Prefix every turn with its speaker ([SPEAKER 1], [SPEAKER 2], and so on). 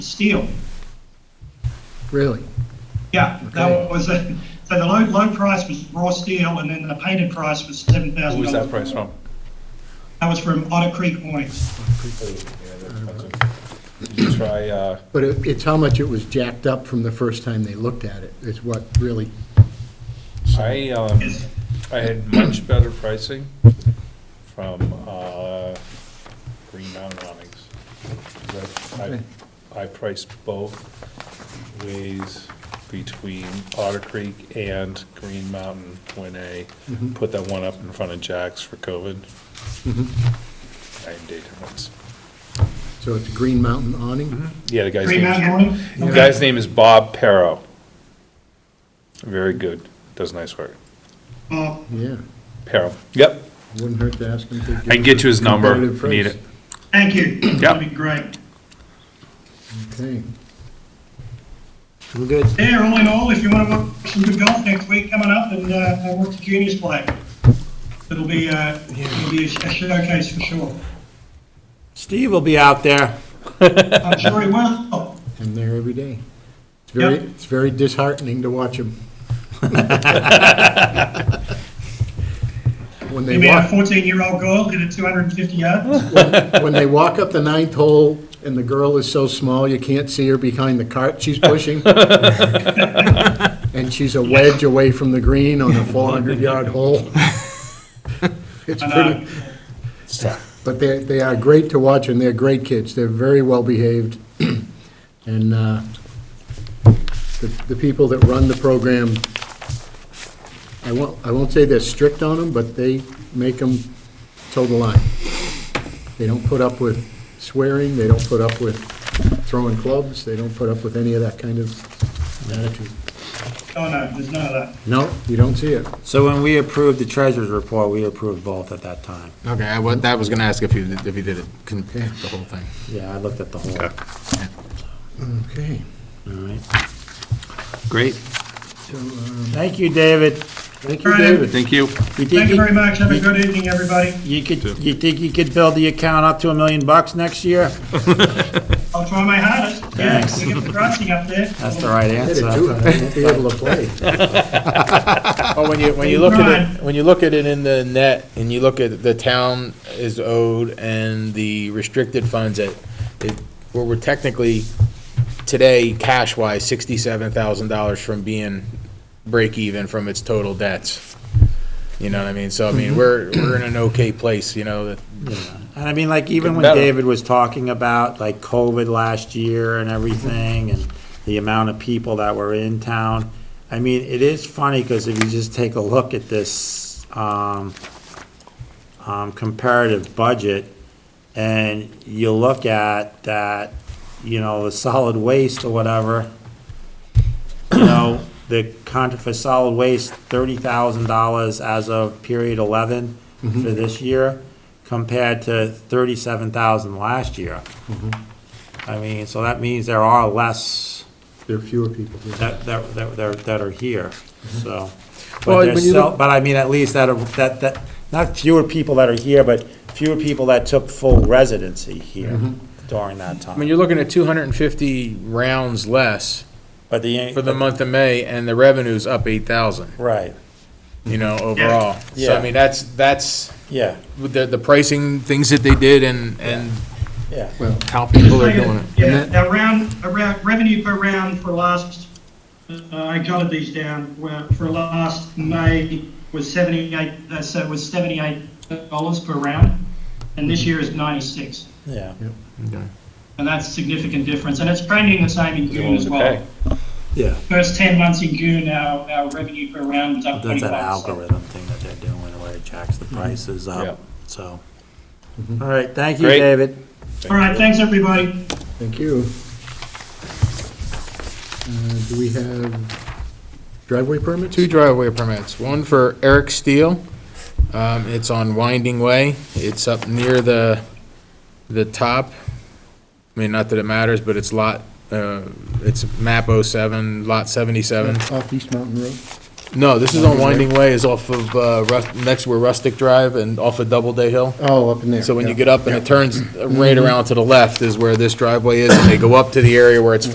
[SPEAKER 1] steel.
[SPEAKER 2] Really?
[SPEAKER 1] Yeah,
[SPEAKER 2] Okay.
[SPEAKER 1] that was, a- so the low, low price was raw steel, and then the painted price was seven
[SPEAKER 3] Who
[SPEAKER 1] thousand
[SPEAKER 3] was that
[SPEAKER 1] dollars.
[SPEAKER 3] price from?
[SPEAKER 1] That was from Otter Creek Awnings.
[SPEAKER 3] Did you try, uh,
[SPEAKER 2] But it- it's how much it was jacked up from the first time they looked at it, is what really,
[SPEAKER 3] I, um,
[SPEAKER 1] Yes.
[SPEAKER 3] I had much better pricing from, uh, Green Mountain Awnings. 'Cause I- I-
[SPEAKER 2] Okay.
[SPEAKER 3] I priced both ways between Otter Creek and Green Mountain when I
[SPEAKER 2] Mhm.
[SPEAKER 3] put that one up in front of Jack's for COVID,
[SPEAKER 2] Mhm.
[SPEAKER 3] Mm-hmm. nine day difference.
[SPEAKER 2] so it's a Green Mountain awning?
[SPEAKER 3] Yeah, the guy's
[SPEAKER 1] Green
[SPEAKER 3] name is
[SPEAKER 1] Mountain Awning?
[SPEAKER 3] The
[SPEAKER 1] Okay.
[SPEAKER 3] guy's name is Bob Perro. Very good. Does nice work.
[SPEAKER 1] Uh,
[SPEAKER 2] Yeah,
[SPEAKER 3] Perro. Yep.
[SPEAKER 2] wouldn't hurt to ask them to give.
[SPEAKER 3] I can get you his
[SPEAKER 2] a
[SPEAKER 3] number.
[SPEAKER 2] competitive
[SPEAKER 3] if you Need
[SPEAKER 2] price.
[SPEAKER 3] it.
[SPEAKER 1] Thank you. That'd be great.
[SPEAKER 2] Okay. We're good.
[SPEAKER 1] Yeah, all in all, if you want to watch some good golf next week coming up and, uh, and watch the juniors play, it'll be, uh, it'll be a sh- a showcase for sure.
[SPEAKER 4] Steve will be out there.
[SPEAKER 1] I'm sure he will.
[SPEAKER 2] I'm there every day. It's very,
[SPEAKER 1] Yep.
[SPEAKER 2] it's very disheartening to watch them. When
[SPEAKER 1] He
[SPEAKER 2] they
[SPEAKER 1] made a
[SPEAKER 2] walk,
[SPEAKER 1] fourteen-year-old girl, hit a two hundred and fifty yards.
[SPEAKER 2] when they walk up the ninth hole and the girl is so small, you can't see her behind the cart she's pushing. And she's a wedge away from the green on a four hundred yard hole. It's
[SPEAKER 1] And, uh,
[SPEAKER 2] pretty, but they, they are great to watch and they're great kids. They're very well behaved. And, uh, the, the people that run the program, I won't, I won't say they're strict on them, but they make them toe the line. They don't put up with swearing, they don't put up with throwing clubs, they don't put up with any of that kind of attitude.
[SPEAKER 1] oh no, there's none of that.
[SPEAKER 2] No, you don't see it.
[SPEAKER 4] So when we approved the treasurer's report, we approved both at that time.
[SPEAKER 5] Okay, I was, that was gonna ask if you, did- if you did it, con- the whole thing.
[SPEAKER 4] Yeah, I looked at the whole, all
[SPEAKER 2] Okay.
[SPEAKER 4] right.
[SPEAKER 6] Great,
[SPEAKER 4] Thank you, David.
[SPEAKER 2] Thank
[SPEAKER 1] All
[SPEAKER 2] you,
[SPEAKER 1] right.
[SPEAKER 2] uh, David.
[SPEAKER 6] thank you.
[SPEAKER 4] You think
[SPEAKER 1] Thank you
[SPEAKER 4] you-
[SPEAKER 1] very much. Have a good evening, everybody.
[SPEAKER 4] You could, you think you could build the account up to a million bucks next year?
[SPEAKER 1] I'll try my hardest. Yeah,
[SPEAKER 4] Thanks.
[SPEAKER 1] We get the pricing up there.
[SPEAKER 4] That's the right
[SPEAKER 2] Hit it
[SPEAKER 4] answer. Oh,
[SPEAKER 2] too high, you won't be able to play.
[SPEAKER 7] Well, when you, when you look at it, when you look at it in the net, and you look at the town is owed and the restricted funds that, it- where we're technically, today, cash-wise, sixty-seven thousand dollars from being break-even from its total debts. You know what I mean? So, I mean, we're, we're in an okay place, you know, that
[SPEAKER 4] And I mean, like, even when
[SPEAKER 3] Better.
[SPEAKER 4] David was talking about, like, COVID last year and everything, and the amount of people that were in town, I mean, it is funny, because if you just take a look at this, um, um, comparative budget, and you look at that, you know, the solid waste or whatever, you know, the contract for solid waste, thirty thousand dollars as of period eleven for
[SPEAKER 7] Mm-hmm.
[SPEAKER 4] this year, compared to thirty-seven thousand last year.
[SPEAKER 7] Mm-hmm.
[SPEAKER 4] I mean, so that means there are less
[SPEAKER 2] There are fewer people here.
[SPEAKER 4] that, that, that, that- that are here, so.
[SPEAKER 7] Mm-hmm. Well,
[SPEAKER 4] But there's
[SPEAKER 7] when you
[SPEAKER 4] still,
[SPEAKER 7] look-
[SPEAKER 4] but I mean, at least that, are- that, that, not fewer people that are here, but fewer people that took full residency here
[SPEAKER 7] Mm-hmm.
[SPEAKER 4] during that
[SPEAKER 7] I mean,
[SPEAKER 4] time.
[SPEAKER 7] you're looking at two hundred and fifty rounds less
[SPEAKER 4] But
[SPEAKER 7] for the
[SPEAKER 4] the,
[SPEAKER 7] month of May, and the revenue's up eight thousand,
[SPEAKER 4] right,
[SPEAKER 7] you know, overall. So,
[SPEAKER 4] Yeah.
[SPEAKER 7] I mean, that's, that's,
[SPEAKER 4] yeah,
[SPEAKER 7] with the, the pricing, things that they did and, and
[SPEAKER 4] yeah.
[SPEAKER 7] how people are doing it.
[SPEAKER 1] Yeah, now round, around, revenue per round for last, uh, I jotted these down, where for last May was seventy-eight, uh, so it was seventy-eight dollars per round, and this year is ninety-six.
[SPEAKER 4] Yeah.
[SPEAKER 1] And that's a significant difference, and it's trending the same in June as well.
[SPEAKER 3] Okay.
[SPEAKER 4] Yeah.
[SPEAKER 1] First ten months in June, our, our revenue per round is up
[SPEAKER 4] That's
[SPEAKER 1] twenty-five
[SPEAKER 4] an
[SPEAKER 1] percent.
[SPEAKER 4] algorithm thing that they're doing where it jacks the prices
[SPEAKER 3] Mm-hmm. Yeah.
[SPEAKER 4] up, so. All right, thank you,
[SPEAKER 3] Great.
[SPEAKER 4] David.
[SPEAKER 1] All right, thanks, everybody.
[SPEAKER 2] Thank you. Uh, Do we have driveway permits?
[SPEAKER 7] Two driveway permits, one for Eric Steele. Um, it's on Winding Way. It's up near the, the top. I mean, not that it matters, but it's lot, uh, it's map oh seven, lot seventy-seven.
[SPEAKER 2] Off East Mountain Road?
[SPEAKER 7] No, this is on Winding Way, is off of, uh, Rus- next where Rustic Drive and off of Doubleday Hill.
[SPEAKER 2] Oh, up in there.
[SPEAKER 7] So when you
[SPEAKER 2] yeah.
[SPEAKER 7] get up and it turns right around to the left is where this driveway is, and they go up to the area where it's